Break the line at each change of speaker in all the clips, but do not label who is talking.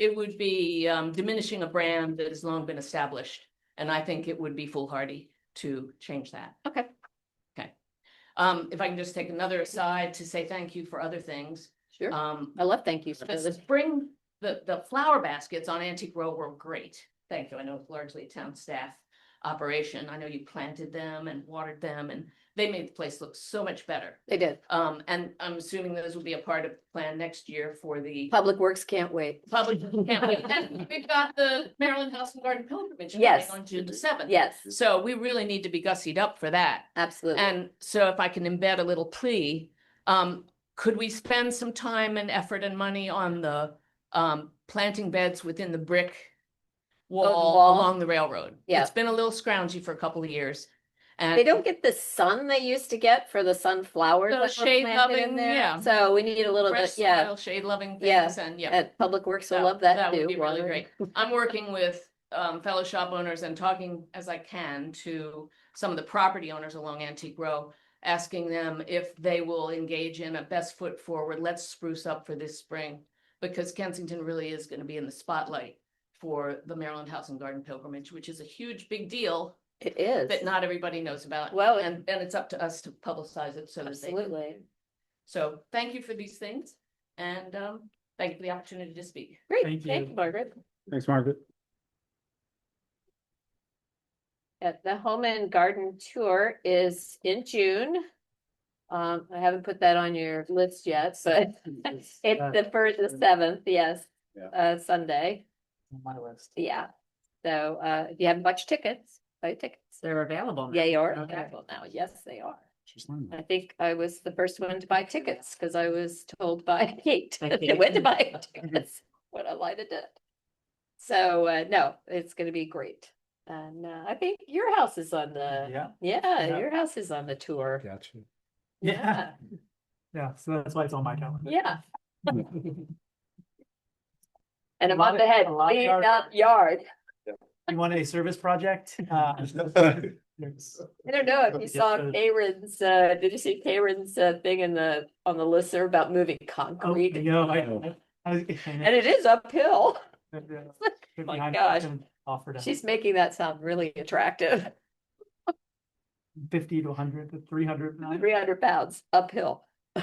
It would be um diminishing a brand that has long been established, and I think it would be foolhardy to change that.
Okay.
Okay. Um, if I can just take another aside to say thank you for other things,
Sure.
um,
I love thank yous for
the
this.
spring, the, the flower baskets on Antique Row were great. Thank you. I know it's largely a town staff operation. I know you planted them and watered them and they made the place look so much better.
They did.
Um, and I'm assuming those will be a part of the plan next year for the
Public Works can't wait.
public. campaign. And We've got the Maryland House and Garden pilgrimage coming
Yes.
on June the seventh.
Yes,
So we really need to be gussied up for that.
absolutely.
And so if I can embed a little plea, um, could we spend some time and effort and money on the um, planting beds within the brick wall
wall?
along the railroad?
Yeah.
It's been a little scroungy for a couple of years. And
They don't get the sun they used to get for the sunflowers.
The
that were
shade
planted in
loving,
there.
yeah.
So we need a little bit,
fresh
yeah,
soil, Shade loving
Yeah.
things and yeah.
at Public Works will
That-
love that
that
too.
would be really
watering.
great. I'm working with um fellow shop owners and talking as I can to some of the property owners along Antique Row. Asking them if they will engage in a best foot forward, let's spruce up for this spring. Because Kensington really is gonna be in the spotlight for the Maryland House and Garden Pilgrimage, which is a huge big deal
It
that
is,
not everybody knows about.
Well, it-
And and it's up to us to publicize it so that they.
absolutely.
So thank you for these things and um thank you for the opportunity to speak.
Great,
Thank
thank
you.
you, Margaret.
Thanks, Margaret.
Yeah, the Home and Garden Tour is in June. Um, I haven't put that on your list yet, but it's
Uh,
the first, the seventh, yes,
Yeah.
uh, Sunday,
My list.
yeah. So, uh, if you haven't bought your tickets, buy your tickets.
They're available. now.
Yeah, you are
Okay.
available now, yes, they are.
She's learning.
I think I was the first one to buy tickets because I was told by Kate
By
that I
Kate.
went to buy tickets when I lied to did. So uh, no, it's gonna be great. And uh, I think your house is on the,
Yeah.
yeah,
Yeah.
your house is on the tour.
Gotcha.
Yeah, yeah, so that's why it's on my calendar.
Yeah,
You
and I'm
lot
on
of-
the head,
a lot of
clean
yard
up yard.
want a service project? Uh, there's-
I don't know if you
Yes,
saw
uh,
Karen's, uh, did you see Karen's uh, thing in the, on the listserv about moving
Oh,
concrete?
you know, I- I- I was-
And it is uphill.
Yeah.
my
Behind-
gosh.
Offered a
She's making that sound really attractive.
fifty to a hundred to three hundred.
three hundred pounds uphill.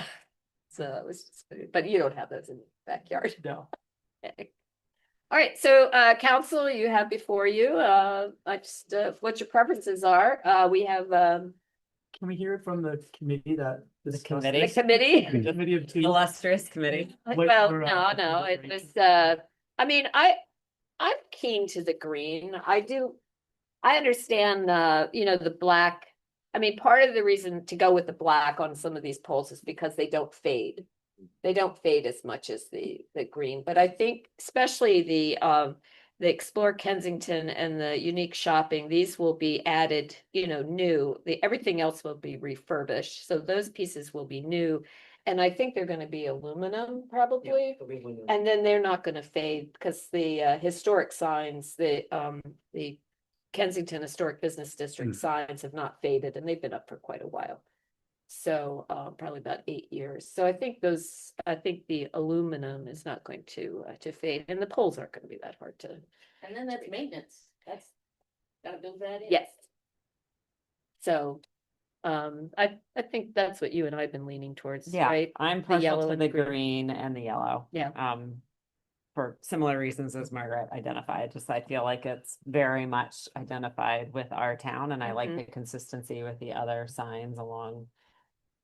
So it was, just- but you don't have those in the backyard.
No,
Okay. All right, so uh, council, you have before you, uh, I just, uh, what your preferences are. Uh, we have um,
can we hear from the committee that? discussed
committee?
the
this?
committee.
The Committee of two.
illustrious committee.
Like,
Wait
Well,
for,
no,
uh,
no, it
deliberation.
was, uh, I mean, I, I'm keen to the green, I do. I understand, uh, you know, the black, I mean, part of the reason to go with the black on some of these poles is because they don't fade. They don't fade as much as the, the green, but I think especially the, um, the Explore Kensington and the Unique Shopping, these will be added, you know, new, the, everything else will be refurbished, so those pieces will be new. And I think they're gonna be aluminum probably, and then they're not gonna fade, because the uh, historic signs, the, um, the Kensington Historic Business District
Mm.
signs have not faded, and they've been up for quite a while. So, uh, probably about eight years, so I think those, I think the aluminum is not going to, uh, to fade, and the poles aren't gonna be that hard to
And then that's maintenance. That's, gotta build that in.
Yes. So, um, I, I think that's what you and I have been leaning towards,
Yeah,
right?
I'm
yellow
partial to
and
the
the green.
green and the yellow.
Yeah.
Um, for similar reasons as Margaret identified, just I feel like it's very much identified with our town and I like
Mhm.
the consistency with the other signs along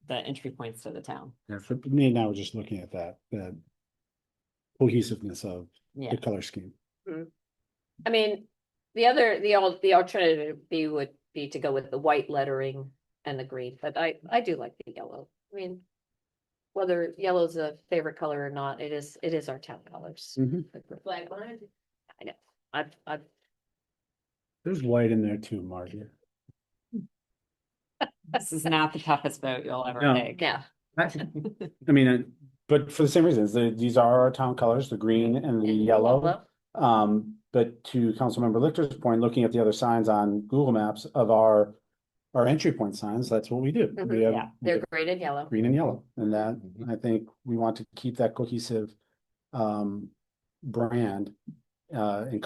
the entry points to the town.
Yeah, for me and I were just looking at that, the cohesiveness of
Yeah,
the color scheme.
I mean, the other, the al- the alternative B would be to go with the white lettering and the green, but I, I do like the yellow. I mean, whether yellow's a favorite color or not, it is, it is our town colors.
Mhm.
Flag line.
I've, I've,
There's white in there too, Margaret.
this is not the toughest vote you'll ever
No.
take.
yeah,
I mean, uh, but for the same reasons, the- these are our town colors, the green and the
And
yellow.
yellow.
Um, but to Councilmember Lichter's point, looking at the other signs on Google Maps of our, our entry point signs, that's what we do.
Mhm,
We have
yeah.
we have
they're green and yellow.
green and yellow, and that, I think we want to keep that cohesive um brand uh, and